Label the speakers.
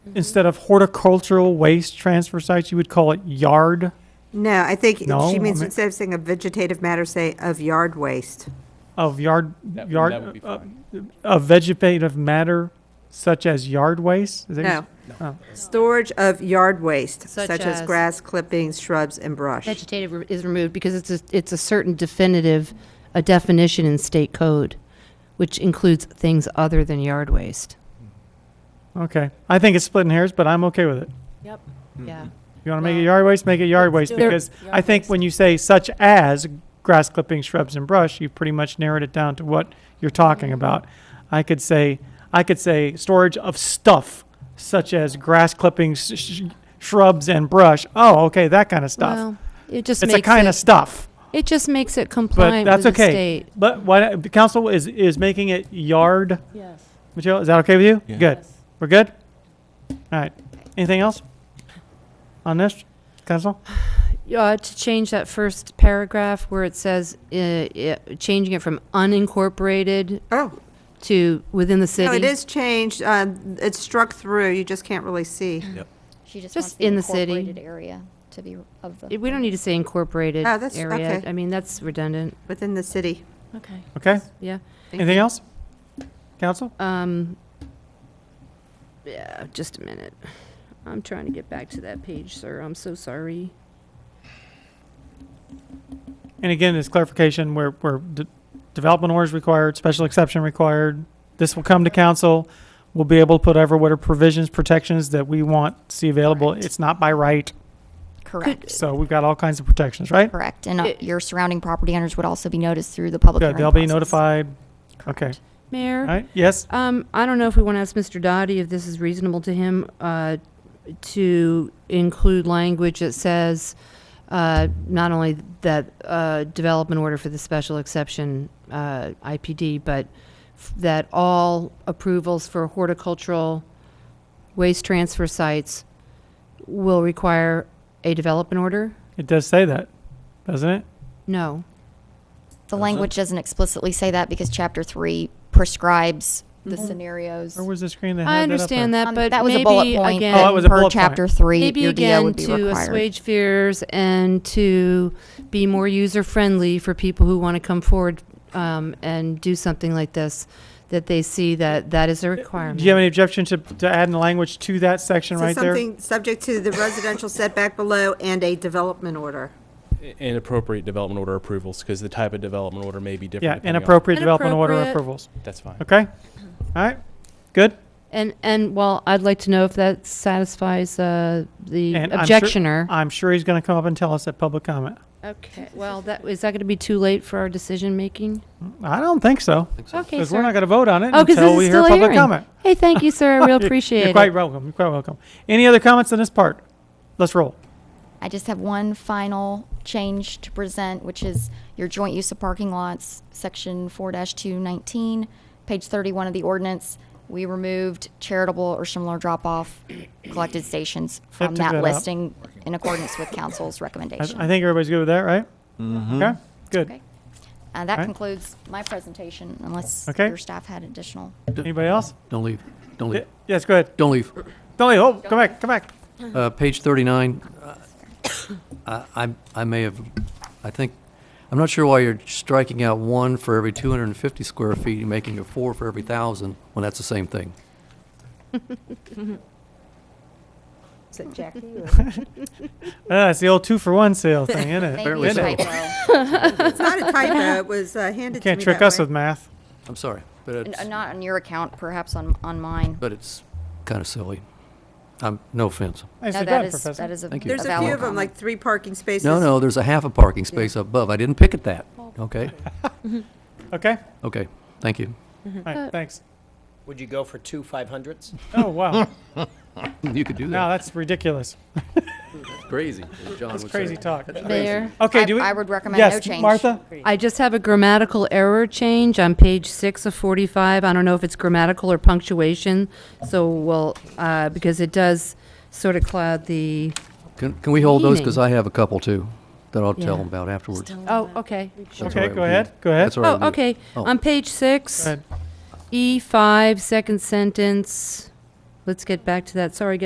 Speaker 1: Instead of horticultural waste transfer sites, you would call it yard.
Speaker 2: No, I think
Speaker 1: No,
Speaker 2: she
Speaker 1: I
Speaker 2: means
Speaker 1: mean-
Speaker 2: instead of saying of vegetative matter, say of yard waste.
Speaker 1: of yard,
Speaker 3: That-
Speaker 1: yard,
Speaker 3: that would be
Speaker 1: uh,
Speaker 3: fine.
Speaker 1: of vegetative matter such as yard waste? Is that what you
Speaker 2: No. Oh. Storage of yard waste,
Speaker 4: Such
Speaker 2: such as
Speaker 4: as-
Speaker 2: grass clippings, shrubs, and brush.
Speaker 4: Vegetative re- is removed because it's a, it's a certain definitive, a definition in state code, which includes things other than yard waste.
Speaker 1: said? Okay, I think it's splitting hairs, but I'm okay with it.
Speaker 5: Yep.
Speaker 1: Mm-hmm.
Speaker 4: Yeah.
Speaker 1: You want to make it
Speaker 5: Well,
Speaker 1: yard waste, make it yard waste,
Speaker 5: do it.
Speaker 1: because
Speaker 5: Yard
Speaker 1: I think
Speaker 5: waste.
Speaker 1: when you say such as grass clippings, shrubs, and brush, you've pretty much narrowed it down to what you're talking about. I could say, I could say storage of stuff such as grass clippings, sh- shrubs, and brush. Oh, okay, that kind of stuff.
Speaker 4: Well, it just
Speaker 1: It's
Speaker 4: makes
Speaker 1: a kind of
Speaker 4: it,
Speaker 1: stuff.
Speaker 4: it just makes it
Speaker 1: But
Speaker 4: compliant with
Speaker 1: that's
Speaker 4: the
Speaker 1: okay.
Speaker 4: state.
Speaker 1: But what, the council is, is making it yard
Speaker 5: Yes.
Speaker 1: material. Is that okay with you?
Speaker 3: Yeah.
Speaker 1: Good. We're good? All right. Anything else on this, council?
Speaker 4: Uh, to change that first paragraph where it says, uh, uh, changing it from unincorporated
Speaker 2: Oh,
Speaker 4: to within the city.
Speaker 2: no, it is changed. um, It's struck through. You just can't really see.
Speaker 6: She just
Speaker 4: Just
Speaker 6: wants the
Speaker 4: in the city.
Speaker 6: incorporated area to be of the.
Speaker 4: It- We don't e-, need to say incorporated
Speaker 1: Ah,
Speaker 2: Oh, that's-
Speaker 4: area.
Speaker 2: okay.
Speaker 4: I mean, that's redundant,
Speaker 2: Within the city.
Speaker 5: Okay.
Speaker 1: Okay.
Speaker 4: yeah.
Speaker 2: Thank
Speaker 1: Anything else? Council?
Speaker 4: Um, yeah, just a minute. I'm trying to get back to that page, sir. I'm so sorry.
Speaker 1: And again, this clarification, where, where de- development orders required, special exception required. This will come to council. We'll be able to put over what are provisions, protections that we want to see available. It's not by right.
Speaker 6: Correct,
Speaker 1: So we've got all kinds of protections, right?
Speaker 6: correct. And uh,
Speaker 4: It-
Speaker 6: your surrounding property owners would also be noticed through the public
Speaker 1: Good.
Speaker 6: hearing
Speaker 1: They'll be
Speaker 6: process.
Speaker 1: notified. Okay. All
Speaker 4: Mayor?
Speaker 1: right. Yes?
Speaker 4: Um, I don't know if we want to ask Mr. Dotty if this is reasonable to him, uh, to include language that says, uh, not only that, uh, development order for the special exception, uh, IPD, but f- that all approvals for horticultural waste transfer sites will require a development order?
Speaker 1: It does say that, doesn't it?
Speaker 4: No.
Speaker 6: The language doesn't explicitly say that because chapter three prescribes the scenarios.
Speaker 1: Where was the screen that had
Speaker 4: I
Speaker 1: that up
Speaker 4: understand
Speaker 1: there?
Speaker 4: that,
Speaker 6: Um,
Speaker 4: Mm-hmm. but
Speaker 6: That was a
Speaker 4: maybe
Speaker 6: bullet point.
Speaker 4: again.
Speaker 1: Oh, that
Speaker 6: that
Speaker 1: was a bullet
Speaker 6: Per
Speaker 1: point.
Speaker 6: chapter three,
Speaker 4: Maybe
Speaker 6: your DO
Speaker 4: again
Speaker 6: would be
Speaker 4: to
Speaker 6: required.
Speaker 4: assuage fears and to be more user friendly for people who want to come forward um, and do something like this, that they see that that is a requirement.
Speaker 1: Do you have any objection to, to adding language to that section
Speaker 2: So
Speaker 1: right there?
Speaker 2: something subject to the residential setback below and a development order.
Speaker 3: And appropriate development order approvals, because the type of development order may be different.
Speaker 1: Yeah,
Speaker 3: depending on-
Speaker 1: inappropriate development order
Speaker 4: Inappropriate.
Speaker 1: approvals.
Speaker 3: That's fine.
Speaker 1: Okay? All right? Good?
Speaker 4: and and well, I'd like to know if that satisfies uh, the
Speaker 1: And I'm sure-
Speaker 4: objectioner.
Speaker 1: I'm sure he's going to come up and tell us at public comment.
Speaker 4: okay. Well, that is that going to be too late for our decision making?
Speaker 1: I don't think so,
Speaker 4: Okay,
Speaker 1: because we're
Speaker 4: sir.
Speaker 1: not going to vote on it
Speaker 4: Oh, 'cause
Speaker 1: until
Speaker 4: this
Speaker 1: we
Speaker 4: is
Speaker 1: hear
Speaker 4: still a
Speaker 1: public
Speaker 4: hearing.
Speaker 1: comment.
Speaker 4: hey, thank you, sir. I real appreciate
Speaker 1: You're quite
Speaker 4: it.
Speaker 1: welcome, you're quite welcome. Any other comments on this part? Let's roll.
Speaker 6: I just have one final change to present, which is your joint use of parking lots, section four two nineteen, page thirty-one of the ordinance. We removed charitable or similar drop-off collected stations from
Speaker 1: took that
Speaker 6: that
Speaker 1: out.
Speaker 6: listing in accordance with council's
Speaker 1: I I
Speaker 6: recommendation.
Speaker 1: think everybody's good with that, right? Okay, good.
Speaker 6: Okay. Uh,
Speaker 1: Alright.
Speaker 6: that concludes my presentation, unless
Speaker 1: Okay.
Speaker 6: your staff had additional.
Speaker 1: Anybody else?
Speaker 7: Don't leave. Don't leave.
Speaker 1: Yes, go ahead.
Speaker 7: Don't leave.
Speaker 1: Don't leave, oh, come back, come back.
Speaker 7: Uh, page 39, uh, I, I- I may have, I think, I'm not sure why you're striking out one for every 250 square feet and making it four for every 1,000, when that's the same thing.
Speaker 1: Ah, It's the old two-for-one sale thing, isn't it?
Speaker 6: Maybe
Speaker 7: Apparently
Speaker 6: a
Speaker 7: so.
Speaker 6: typo.
Speaker 2: It's not a typo. It was uh, handed to me
Speaker 1: Can't trick
Speaker 2: that
Speaker 1: us
Speaker 2: way.
Speaker 1: with math.
Speaker 7: I'm sorry, but it's,
Speaker 6: N- uh, Not on your account, perhaps on, on mine.
Speaker 7: but it's kind of silly. Um, No offense.
Speaker 1: Nice
Speaker 6: No,
Speaker 1: job,
Speaker 6: that is,
Speaker 1: Professor.
Speaker 6: that is a a
Speaker 7: Thank you.
Speaker 2: There's a
Speaker 6: valid
Speaker 2: few of them,
Speaker 6: comment.
Speaker 2: like three parking spaces.
Speaker 7: No, no, there's a half a parking space above. I didn't pick at that. Okay?
Speaker 1: Okay,
Speaker 7: Okay, thank you.
Speaker 1: all right, thanks.
Speaker 8: Would you go for two 500s?
Speaker 1: Oh, wow,
Speaker 7: You could do
Speaker 1: now
Speaker 7: that.
Speaker 1: that's ridiculous.
Speaker 7: Crazy. That's
Speaker 1: Crazy talk.
Speaker 4: Mayor,
Speaker 1: Okay,
Speaker 6: I-
Speaker 1: do we?
Speaker 6: I would recommend
Speaker 1: yes,
Speaker 6: no change.
Speaker 1: Martha?
Speaker 4: I just have a grammatical error change on page six of forty-five. I don't know if it's grammatical or punctuation, so we'll, uh, because it does sort of cloud the,
Speaker 7: Can can we hold those? Because
Speaker 4: Meaning.
Speaker 7: I have a couple, too, that I'll tell
Speaker 4: Yeah.
Speaker 7: them about afterwards.
Speaker 4: oh, okay.
Speaker 7: That's all
Speaker 1: Okay,
Speaker 7: right
Speaker 1: go
Speaker 7: with you.
Speaker 1: ahead, go ahead.
Speaker 7: That's all right with
Speaker 4: Oh,
Speaker 7: you.
Speaker 4: okay.
Speaker 7: Oh.
Speaker 4: On page
Speaker 1: Go
Speaker 4: six,
Speaker 1: ahead.
Speaker 4: E five, second sentence, let's get back to that. Sorry,